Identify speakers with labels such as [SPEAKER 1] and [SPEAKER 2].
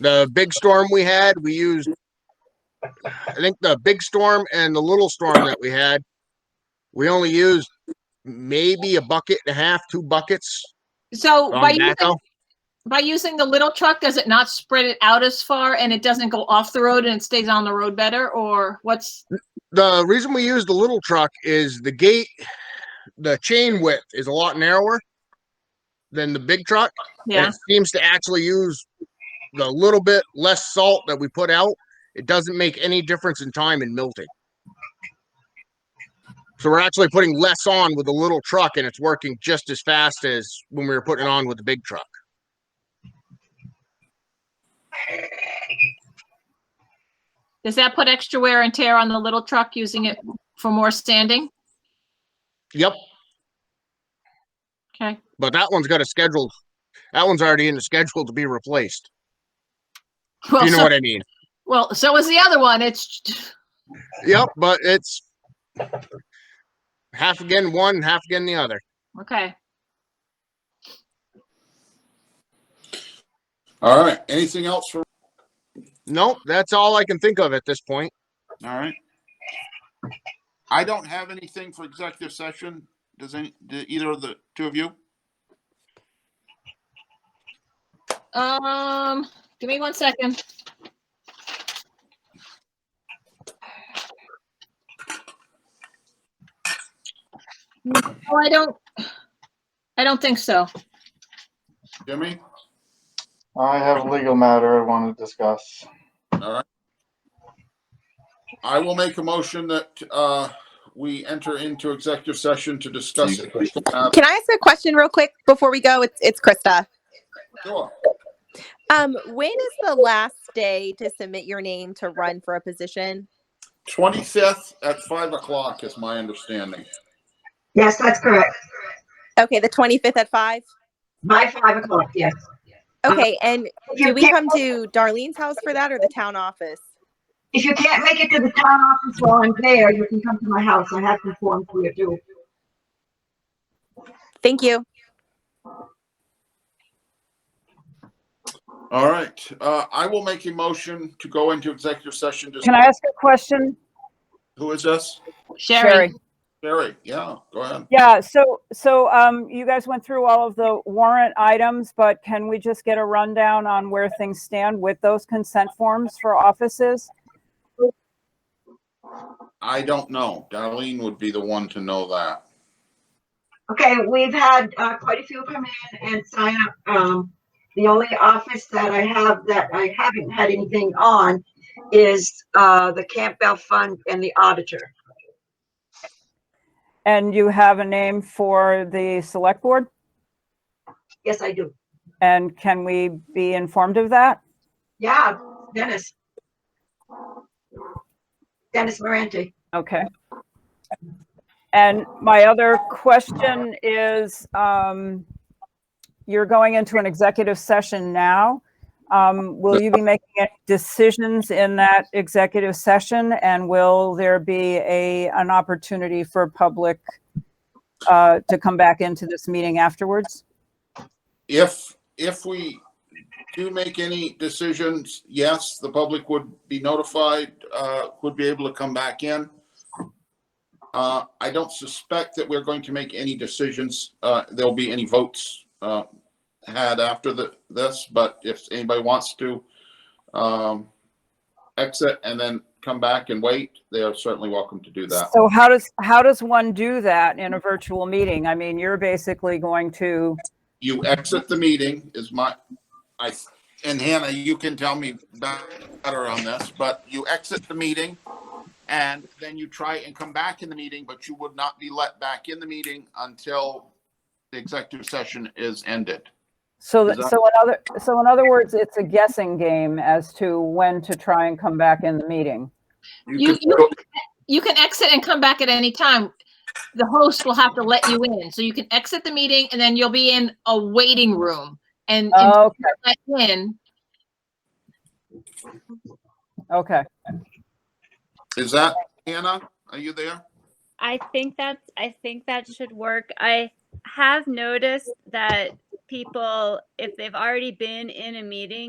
[SPEAKER 1] The big storm we had, we used, I think the big storm and the little storm that we had, we only used maybe a bucket and a half, two buckets
[SPEAKER 2] So
[SPEAKER 1] on
[SPEAKER 2] by using,
[SPEAKER 1] backhoe.
[SPEAKER 2] by using the little truck, does it not spread it out as far and it doesn't go off the road and it stays on the road better or what's?
[SPEAKER 1] The reason we use the little truck is the gate, the chain width is a lot narrower than the big truck. and
[SPEAKER 2] Yeah,
[SPEAKER 1] it seems to actually use the little bit less salt that we put out. It doesn't make any difference in time in milting. So we're actually putting less on with the little truck and it's working just as fast as when we were putting it on with the big truck.
[SPEAKER 2] does that put extra wear and tear on the little truck using it for more standing?
[SPEAKER 1] Yep,
[SPEAKER 2] Okay,
[SPEAKER 1] but that one's got a schedule. That one's already in the schedule to be replaced. if
[SPEAKER 2] well,
[SPEAKER 1] You know
[SPEAKER 2] so,
[SPEAKER 1] what I mean?
[SPEAKER 2] well, so is the other one. It's,
[SPEAKER 1] Yep, but it's half again one, half again the other.
[SPEAKER 2] okay.
[SPEAKER 3] All right, anything else for,
[SPEAKER 1] Nope, that's all I can think of at this point.
[SPEAKER 3] all right? I don't have anything for executive session. Does any, do either of the two of you?
[SPEAKER 2] Um, give me one second. No, I don't, I don't think so.
[SPEAKER 3] Jimmy?
[SPEAKER 4] I have a legal matter I want to discuss.
[SPEAKER 3] All right. I will make a motion that, uh, we enter into executive session to discuss. uh,
[SPEAKER 5] Can I ask a question real quick before we go? It's it's Krista.
[SPEAKER 3] sure.
[SPEAKER 5] Um, when is the last day to submit your name to run for a position?
[SPEAKER 3] Twenty-fifth at five o'clock is my understanding.
[SPEAKER 6] Yes, that's correct.
[SPEAKER 5] Okay, the twenty fifth at five. Um,
[SPEAKER 6] By five o'clock, yes.
[SPEAKER 5] Okay, and
[SPEAKER 6] If
[SPEAKER 5] do
[SPEAKER 6] you
[SPEAKER 5] we
[SPEAKER 6] can't,
[SPEAKER 5] come to Darlene's house for that or the town office?
[SPEAKER 6] if you can't make it to the town office while I'm there, you can come to my house. I have some forms for you too.
[SPEAKER 5] Thank you.
[SPEAKER 3] All right, uh, I will make a motion to go into executive session. to-
[SPEAKER 7] Can I ask a question?
[SPEAKER 3] Who is this?
[SPEAKER 2] Sherry,
[SPEAKER 3] Barry, yeah, go ahead.
[SPEAKER 7] Yeah, so, so, um, you guys went through all of the warrant items, but can we just get a rundown on where things stand with those consent forms for offices?
[SPEAKER 3] I don't know. Darlene would be the one to know that.
[SPEAKER 6] Okay, we've had uh, quite a few come in and sign up. Um, the only office that I have that I haven't had anything on is uh, the Campbell Fund and the auditor.
[SPEAKER 7] And you have a name for the select board?
[SPEAKER 6] Yes, I do.
[SPEAKER 7] And can we be informed of that?
[SPEAKER 6] Yeah, Dennis. Dennis Morante.
[SPEAKER 7] Okay. And my other question is, um, you're going into an executive session now. Um, will you be making any decisions in that executive session? And will there be a, an opportunity for public, uh, to come back into this meeting afterwards?
[SPEAKER 3] If, if we do make any decisions, yes, the public would be notified, uh, would be able to come back in. Uh, I don't suspect that we're going to make any decisions. Uh, there'll be any votes, uh, had after the, this, but if anybody wants to, um, exit and then come back and wait, they are certainly welcome to do that.
[SPEAKER 7] So how does, how does one do that in a virtual meeting? I mean, you're basically going to
[SPEAKER 3] you exit the meeting is my, I, and Hannah, you can tell me better on this, but you exit the meeting and then you try and come back in the meeting, but you would not be let back in the meeting until the executive session is ended.
[SPEAKER 7] So,
[SPEAKER 3] Is
[SPEAKER 7] th-
[SPEAKER 3] that-
[SPEAKER 7] so in other, so in other words, it's a guessing game as to when to try and come back in the meeting.
[SPEAKER 2] You-
[SPEAKER 3] could-
[SPEAKER 2] you- you can exit and come back at any time. The host will have to let you in. So you can exit the meeting and then you'll be in a waiting room and and
[SPEAKER 7] Okay,
[SPEAKER 2] let in.
[SPEAKER 7] okay.
[SPEAKER 3] Is that, Hannah, are you there?
[SPEAKER 8] I think that I think that should work. I have noticed that people, if they've already been in a meeting,